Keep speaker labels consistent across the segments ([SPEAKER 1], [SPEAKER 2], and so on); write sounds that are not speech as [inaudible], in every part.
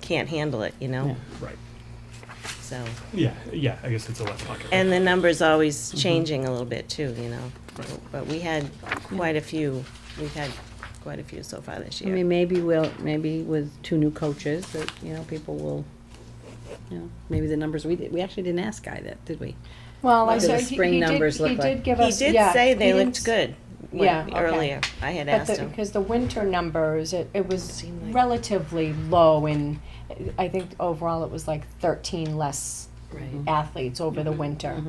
[SPEAKER 1] can't handle it, you know,
[SPEAKER 2] Right.
[SPEAKER 1] so.
[SPEAKER 2] Yeah, yeah, I guess it's a left pocket.
[SPEAKER 1] And the number's always
[SPEAKER 3] Mm-hmm.
[SPEAKER 1] changing a little bit too, you know.
[SPEAKER 2] Right.
[SPEAKER 1] But we had quite a few, we've had quite a few so far this
[SPEAKER 3] I mean,
[SPEAKER 1] year.
[SPEAKER 3] maybe we'll, maybe with two new coaches, that, you know, people will, you know, maybe the numbers, we, di- we actually didn't ask Guy that, did we?
[SPEAKER 4] Well,
[SPEAKER 3] What
[SPEAKER 4] I
[SPEAKER 3] do the
[SPEAKER 4] said, he
[SPEAKER 3] spring
[SPEAKER 4] he did,
[SPEAKER 3] numbers look
[SPEAKER 4] he
[SPEAKER 3] like?
[SPEAKER 4] did give
[SPEAKER 1] He
[SPEAKER 4] us,
[SPEAKER 1] did
[SPEAKER 4] yeah.
[SPEAKER 1] say they
[SPEAKER 4] he didn't
[SPEAKER 1] looked
[SPEAKER 4] s-
[SPEAKER 1] good when-
[SPEAKER 4] Yeah, okay.
[SPEAKER 1] earlier. I had
[SPEAKER 4] But
[SPEAKER 1] asked
[SPEAKER 4] the,
[SPEAKER 1] him.
[SPEAKER 4] because the winter numbers, it, it was
[SPEAKER 1] Seemed like-
[SPEAKER 4] relatively low and I think overall it was like thirteen less
[SPEAKER 3] Right.
[SPEAKER 4] athletes over the winter.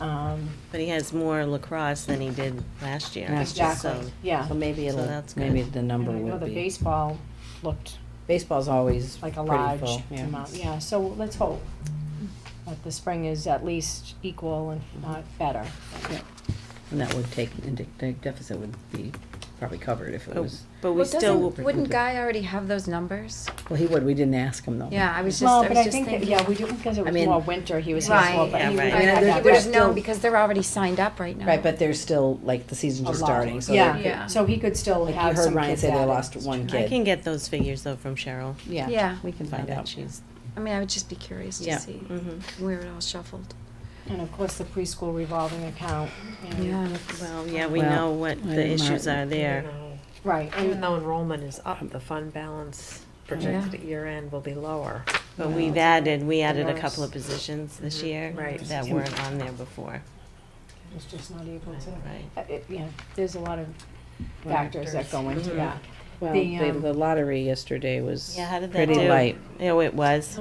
[SPEAKER 4] Um,
[SPEAKER 1] But he has more lacrosse than he did last year.
[SPEAKER 3] Last year.
[SPEAKER 1] So,
[SPEAKER 4] exactly, yeah.
[SPEAKER 3] So maybe
[SPEAKER 1] So
[SPEAKER 3] it'll,
[SPEAKER 1] that's good.
[SPEAKER 3] maybe the
[SPEAKER 4] And
[SPEAKER 3] number
[SPEAKER 4] I know
[SPEAKER 3] will
[SPEAKER 4] the
[SPEAKER 3] be,
[SPEAKER 4] baseball looked
[SPEAKER 3] baseball's always
[SPEAKER 4] like
[SPEAKER 3] pretty
[SPEAKER 4] a
[SPEAKER 3] full,
[SPEAKER 4] large
[SPEAKER 3] yeah.
[SPEAKER 4] amount, yeah, so let's hope that the spring is at least equal and not better.
[SPEAKER 3] And that would take, and the deficit would be probably covered if it
[SPEAKER 1] but-
[SPEAKER 3] was,
[SPEAKER 1] But we
[SPEAKER 5] Well,
[SPEAKER 1] still,
[SPEAKER 5] doesn't- Wouldn't Guy already have those numbers?
[SPEAKER 3] well, he would, we didn't ask him though.
[SPEAKER 5] Yeah, I was just,
[SPEAKER 4] Well,
[SPEAKER 5] I
[SPEAKER 4] but
[SPEAKER 5] was
[SPEAKER 4] I
[SPEAKER 5] just
[SPEAKER 4] think, that-
[SPEAKER 5] thinking.
[SPEAKER 4] yeah, we did, because it
[SPEAKER 3] I
[SPEAKER 4] was
[SPEAKER 3] mean-
[SPEAKER 4] more winter, he was
[SPEAKER 5] Right,
[SPEAKER 4] here,
[SPEAKER 1] yeah,
[SPEAKER 4] but he
[SPEAKER 1] right.
[SPEAKER 4] would
[SPEAKER 1] I
[SPEAKER 3] mean,
[SPEAKER 4] have
[SPEAKER 3] there's-
[SPEAKER 4] that
[SPEAKER 5] He would have
[SPEAKER 4] back.
[SPEAKER 5] known because they're already signed up right now.
[SPEAKER 3] Right, but there's still, like, the season's
[SPEAKER 4] A
[SPEAKER 3] just
[SPEAKER 4] lot.
[SPEAKER 3] starting, so they could-
[SPEAKER 4] Yeah, so he could still
[SPEAKER 3] like,
[SPEAKER 4] have
[SPEAKER 3] you heard
[SPEAKER 4] some
[SPEAKER 3] Ryan
[SPEAKER 4] kids
[SPEAKER 3] say they
[SPEAKER 4] at
[SPEAKER 3] lost
[SPEAKER 4] it.
[SPEAKER 3] one
[SPEAKER 1] I
[SPEAKER 3] kid.
[SPEAKER 1] can get those figures though from Cheryl.
[SPEAKER 5] Yeah.
[SPEAKER 3] We can
[SPEAKER 1] I
[SPEAKER 3] find
[SPEAKER 1] bet
[SPEAKER 3] out.
[SPEAKER 1] she's,
[SPEAKER 5] I mean, I would just be curious
[SPEAKER 3] Yeah.
[SPEAKER 5] to see
[SPEAKER 1] Mhm.
[SPEAKER 5] where it all shuffled.
[SPEAKER 4] And of course, the preschool revolving account, you know.
[SPEAKER 5] Yeah.
[SPEAKER 1] well, yeah, we
[SPEAKER 3] Well,
[SPEAKER 1] know what
[SPEAKER 3] I
[SPEAKER 1] the
[SPEAKER 3] didn't
[SPEAKER 1] issues
[SPEAKER 3] mark-
[SPEAKER 1] are there.
[SPEAKER 4] right,
[SPEAKER 6] Even
[SPEAKER 4] and,
[SPEAKER 6] though enrollment is up, the fund balance projected
[SPEAKER 5] Yeah.
[SPEAKER 6] at year end will be lower.
[SPEAKER 1] But we've added, we added a
[SPEAKER 4] nurse.
[SPEAKER 1] couple of positions this
[SPEAKER 6] Mhm.
[SPEAKER 1] year
[SPEAKER 6] Right.
[SPEAKER 1] that
[SPEAKER 2] Mm-hmm.
[SPEAKER 1] weren't on there before,
[SPEAKER 4] it's just not able to,
[SPEAKER 1] right?
[SPEAKER 4] uh, it, yeah, there's a lot of factors that go into
[SPEAKER 1] Mhm.
[SPEAKER 4] that.
[SPEAKER 3] Well,
[SPEAKER 4] The,
[SPEAKER 3] the,
[SPEAKER 4] um,
[SPEAKER 3] the lottery yesterday was
[SPEAKER 1] Yeah, how did that
[SPEAKER 3] pretty
[SPEAKER 1] do?
[SPEAKER 3] light.
[SPEAKER 1] Oh, it was.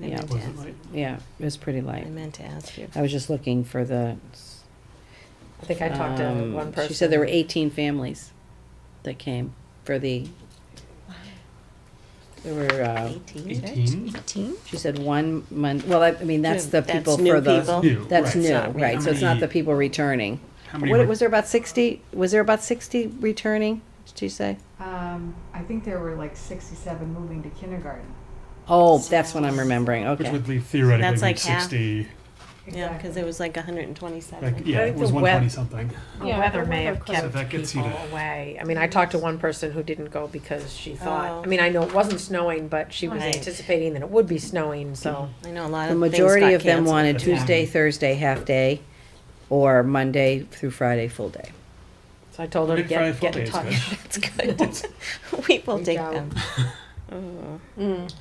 [SPEAKER 1] I
[SPEAKER 3] Yeah.
[SPEAKER 1] meant to
[SPEAKER 2] Was it
[SPEAKER 1] ask-
[SPEAKER 2] like-
[SPEAKER 3] Yeah, it was pretty
[SPEAKER 1] I
[SPEAKER 3] light.
[SPEAKER 1] meant to ask you.
[SPEAKER 3] I was just looking for the.
[SPEAKER 6] I think I talked to
[SPEAKER 3] um,
[SPEAKER 6] one person.
[SPEAKER 3] She said there were eighteen families that came for the. There were, uh,
[SPEAKER 1] Eighteen?
[SPEAKER 2] Eighteen?
[SPEAKER 5] Eighteen?
[SPEAKER 3] she said one month, well, I, I mean, that's the
[SPEAKER 1] That's
[SPEAKER 3] people
[SPEAKER 1] new
[SPEAKER 3] for the.
[SPEAKER 1] people.
[SPEAKER 2] New,
[SPEAKER 3] That's
[SPEAKER 2] right.
[SPEAKER 3] new,
[SPEAKER 1] Not
[SPEAKER 3] right, so it's not the
[SPEAKER 2] returning.
[SPEAKER 3] people returning.
[SPEAKER 2] How many?
[SPEAKER 3] What,
[SPEAKER 2] were-
[SPEAKER 3] was there about sixty, was there about sixty returning, did she say?
[SPEAKER 7] Um, I think there were like sixty-seven moving to kindergarten.
[SPEAKER 3] Oh, that's what I'm remembering,
[SPEAKER 2] Which
[SPEAKER 3] okay.
[SPEAKER 2] would leave theoretically
[SPEAKER 1] That's
[SPEAKER 2] leave
[SPEAKER 1] like half.
[SPEAKER 2] sixty.
[SPEAKER 1] Yeah, because there was like hundred and
[SPEAKER 2] Like,
[SPEAKER 1] twenty-seven.
[SPEAKER 2] yeah,
[SPEAKER 6] I
[SPEAKER 2] it
[SPEAKER 6] think
[SPEAKER 2] was
[SPEAKER 6] the
[SPEAKER 2] one
[SPEAKER 6] web-
[SPEAKER 2] twenty something.
[SPEAKER 6] The
[SPEAKER 4] Yeah,
[SPEAKER 6] weather
[SPEAKER 4] the
[SPEAKER 6] may
[SPEAKER 4] weather
[SPEAKER 6] have
[SPEAKER 2] So
[SPEAKER 6] kept
[SPEAKER 2] that gets you
[SPEAKER 6] people
[SPEAKER 2] to-
[SPEAKER 6] away. I mean, I talked to one person who didn't go because she
[SPEAKER 1] Oh.
[SPEAKER 6] thought, I mean, I know it wasn't snowing, but she was
[SPEAKER 1] Right.
[SPEAKER 6] anticipating that it would be snowing, so.
[SPEAKER 1] I know a lot
[SPEAKER 3] The
[SPEAKER 1] of things got canceled.
[SPEAKER 3] majority of them wanted
[SPEAKER 2] Yeah.
[SPEAKER 3] Tuesday, Thursday, half day, or Monday through Friday, full day.
[SPEAKER 6] So I told her to
[SPEAKER 2] Good Friday
[SPEAKER 6] get, get in
[SPEAKER 2] Full Day
[SPEAKER 6] touch.
[SPEAKER 1] [laughs] That's good. [laughs] We will
[SPEAKER 6] We
[SPEAKER 1] take
[SPEAKER 6] don't.
[SPEAKER 1] them. Oh,
[SPEAKER 4] mm,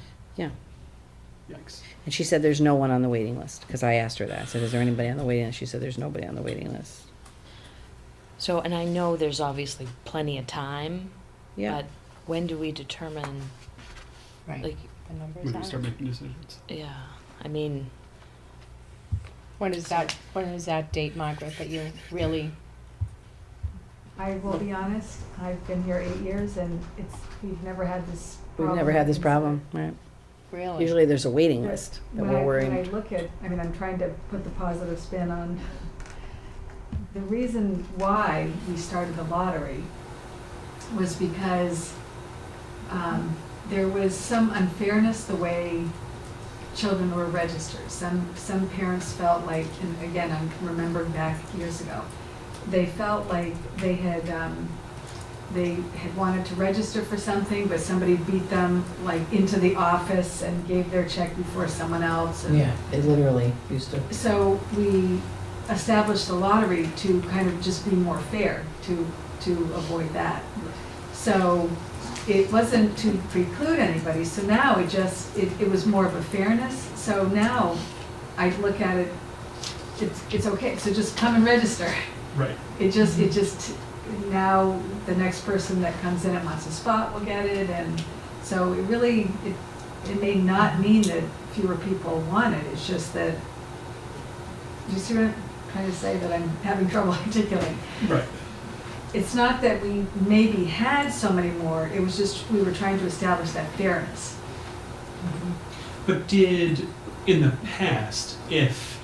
[SPEAKER 2] Yikes.
[SPEAKER 3] And she said, there's no one on the waiting list, because I asked her that. I said, is there anybody on the waiting list? She said, there's nobody on the waiting list.
[SPEAKER 8] So, and I know there's obviously plenty of time,
[SPEAKER 3] Yeah,
[SPEAKER 8] but when do we determine,
[SPEAKER 4] right,
[SPEAKER 8] like,
[SPEAKER 4] the
[SPEAKER 2] We can
[SPEAKER 4] numbers
[SPEAKER 2] start
[SPEAKER 4] are,
[SPEAKER 2] making decisions.
[SPEAKER 8] yeah, I mean,
[SPEAKER 4] when is that, when is that date, Margaret, that you really,
[SPEAKER 7] I will be honest, I've been here eight years and it's, we've never had this
[SPEAKER 3] we've
[SPEAKER 7] problem.
[SPEAKER 3] never had this problem, right?
[SPEAKER 4] really?
[SPEAKER 3] Usually there's a waiting list that
[SPEAKER 7] When I,
[SPEAKER 3] we're
[SPEAKER 7] when I
[SPEAKER 3] worrying.
[SPEAKER 7] look at, I mean, I'm trying to put the positive spin on, [laughs] the reason why we started the lottery was because, um, there was some unfairness the way children were registered. Some, some parents felt like, and again, I'm remembering back years ago, they felt like they had, um, they had wanted to register for something, but somebody beat them like into the office and gave their check before someone else. and-
[SPEAKER 3] it literally used to.
[SPEAKER 7] so we established the lottery to kind of just be more fair, to, to avoid that. So it wasn't to preclude anybody, so now it just, it, it was more of a fairness. So now I look at it, it's, it's okay, so just come and register.
[SPEAKER 2] Right.
[SPEAKER 7] It just, it just, now the next person that comes in and wants a spot will get it, and so it really, it, it may not mean that fewer people want it, it's just that, you see what I'm trying to say, that I'm having [laughs] trouble articulating?
[SPEAKER 2] Right.
[SPEAKER 7] It's not that we maybe had so many more, it was just, we were trying to establish that fairness.
[SPEAKER 2] But did, in the past, if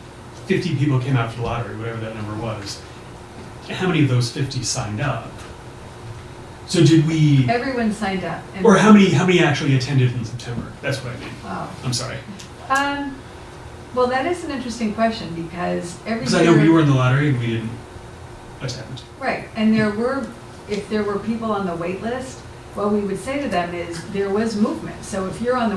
[SPEAKER 2] 50 people came out for the lottery, whatever that number was, how many of those 50 signed up? So did we,
[SPEAKER 7] Everyone signed up. and-
[SPEAKER 2] or how many, how many actually attended in September? That's what I mean.
[SPEAKER 7] Wow.
[SPEAKER 2] I'm sorry.
[SPEAKER 7] Um, well, that is an interesting question, because every year.
[SPEAKER 2] Because I know we were in the lottery and we didn't attend.
[SPEAKER 7] Right, and there were, if there were people on the wait list, what we would say to them is, there was movement. So if you're on the